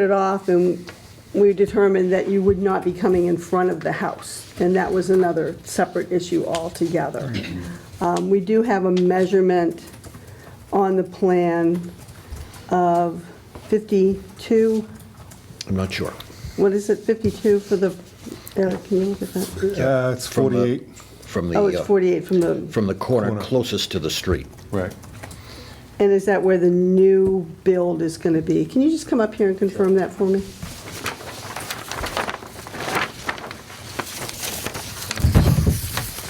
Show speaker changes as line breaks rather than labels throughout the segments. it off, and we determined that you would not be coming in front of the house, and that was another separate issue altogether. Um, We do have a measurement on the plan of 52,
I'm not sure.
what is it, 52 for the, Eric, can you look at that?
Uh, It's
From the-
48.
From
Oh, it's
the, uh,
48 from the
from the corner
Corner.
closest to the street.
Right.
And is that where the new build is going to be? Can you just come up here and confirm that for me?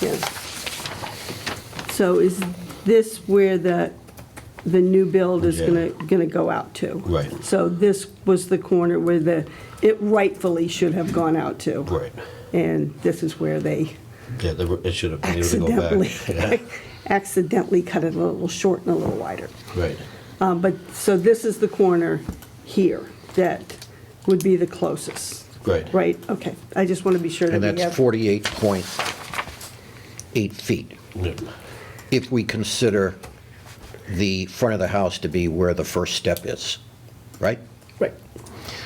Yeah. So is this where the, the new build is going to, going to go out to?
Right.
So this was the corner where the, it rightfully should have gone out to.
Right.
And this is where they
Yeah, they were- it should have been able to go
accidentally,
back. Yeah,
accidentally cut it a little short and a little wider.
Right.
Um, But, so this is the corner here that would be the closest,
Right.
right? Okay, I just want to be sure that
And
we have.
that's 48.8 feet,
Yeah.
if we consider the front of the house to be where the first step is, right?
Right,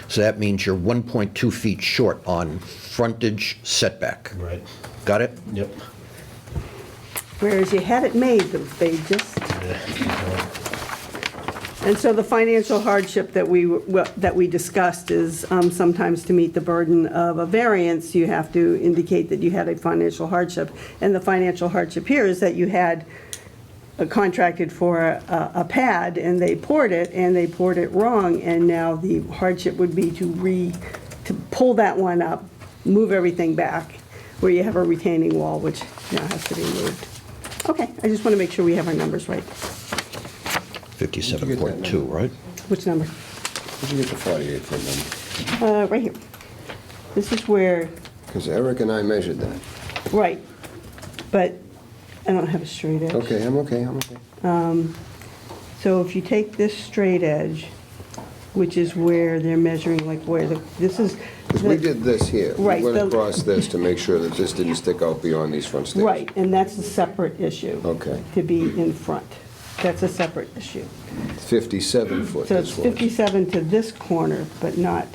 So that means you're 1.2 feet short on frontage setback.
Right.
Got it?
Yep.
whereas you had it made, but they just,
Yeah.
and so the financial hardship that we, were- that we discussed is um, sometimes to meet the burden of a variance, you have to indicate that you had a financial hardship. And the financial hardship here is that you had uh, contracted for a, a pad and they poured it and they poured it wrong and now the hardship would be to re, to pull that one up, move everything back where you have a retaining wall, which now has to be moved. Okay, I just want to make sure we have our numbers right.
57.2, right?
Which number?
Where'd you get the 48 from them?
Uh, right here. This is where,
Because Eric and I measured that.
right, but I don't have a straight edge.
Okay, I'm okay, I'm okay.
So if you take this straight edge, which is where they're measuring, like where the, this is.
Because we
the-
did this here.
Right,
We
the-
went across this to make sure that this didn't stick out beyond these front stairs.
Right, and that's a separate issue.
Okay.
To be in front. That's a separate issue.
57 foot,
So it's
this was.
57 to this corner, but not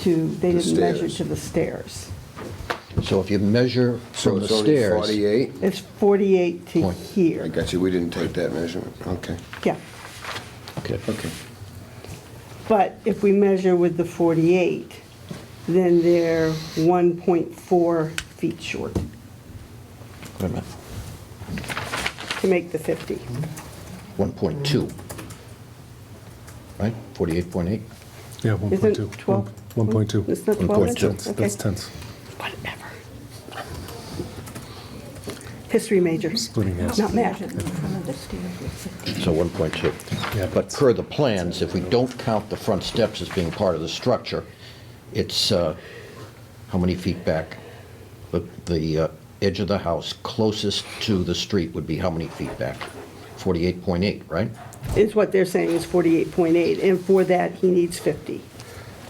to, they
The
didn't measure
stairs.
to the stairs.
So if you measure
So
from the
it's only
stairs.
48?
It's 48 to
Point.
I
here.
got you, we didn't take that measurement. Okay,
Yeah,
Okay.
okay.
but if we measure with the 48, then they're 1.4 feet short
Wait a minute.
to make the 50.
1.2. Right? 48.8?
Yeah,
Isn't
1.2.
12?
1.2.
It's not 12
1.2.
inches? Okay.
That's tense.
Whatever. History major.
Splitting hairs.
Not math.
So 1.2.
Yeah,
But per the plans, if we don't count the front steps as being part of the structure, it's, uh, how many feet back? The the uh, edge of the house closest to the street would be how many feet back? 48.8, right?
Is what they're saying is 48.8, and for that, he needs 50,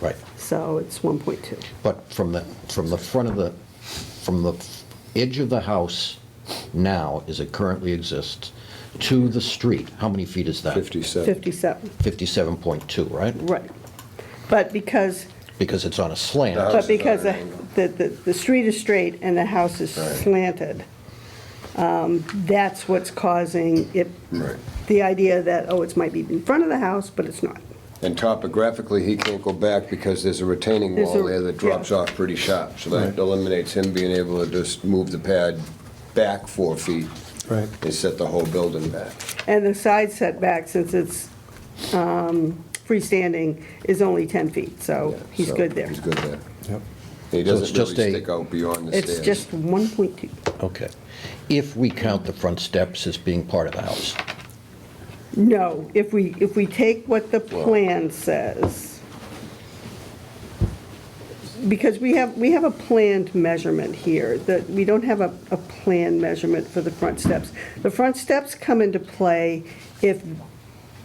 Right.
so it's 1.2.
But from the, from the front of the, from the edge of the house now, as it currently exists, to the street, how many feet is that?
57.
57,
57.2, right?
right. But because,
Because it's on a slant.
The house
but
is
because
on an
the-
angle.
the, the, the street is straight and the house is
Right.
slanted, um, that's what's causing it,
Right.
the idea that, oh, it might be in front of the house, but it's not.
And topographically, he can't go back because there's a retaining
There's
wall
a-
there that drops
yeah.
off pretty sharp. So that eliminates him being able to just move the pad back four feet
Right.
and set the whole building back.
And the side setback, since it's um, freestanding, is only 10 feet, so
Yeah,
Oh, he's
so
good there.
He's good there.
Yep.
He
So it's
doesn't
just
really
a-
stick out beyond the stairs.
It's just 1.2.
Okay. If we count the front steps as being part of the house,
No, if we, if we take what the plan says, because we have, we have a planned measurement here, that, we don't have a, a planned measurement for the front steps. The front steps come into play if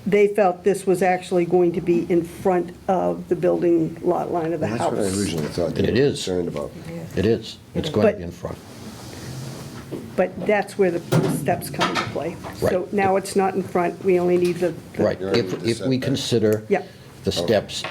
they felt this was actually going to be in front of the building lot line of the
That's
house.
what I originally thought
And
they
it
were
is.
concerned about.
it is. It's going to
But-
be in front.
But that's where the steps come into play. So
Right.
now it's not in front, we only need the. the-
Right.
You're already
If,
with the
if we
setback.
consider
Yeah.
the steps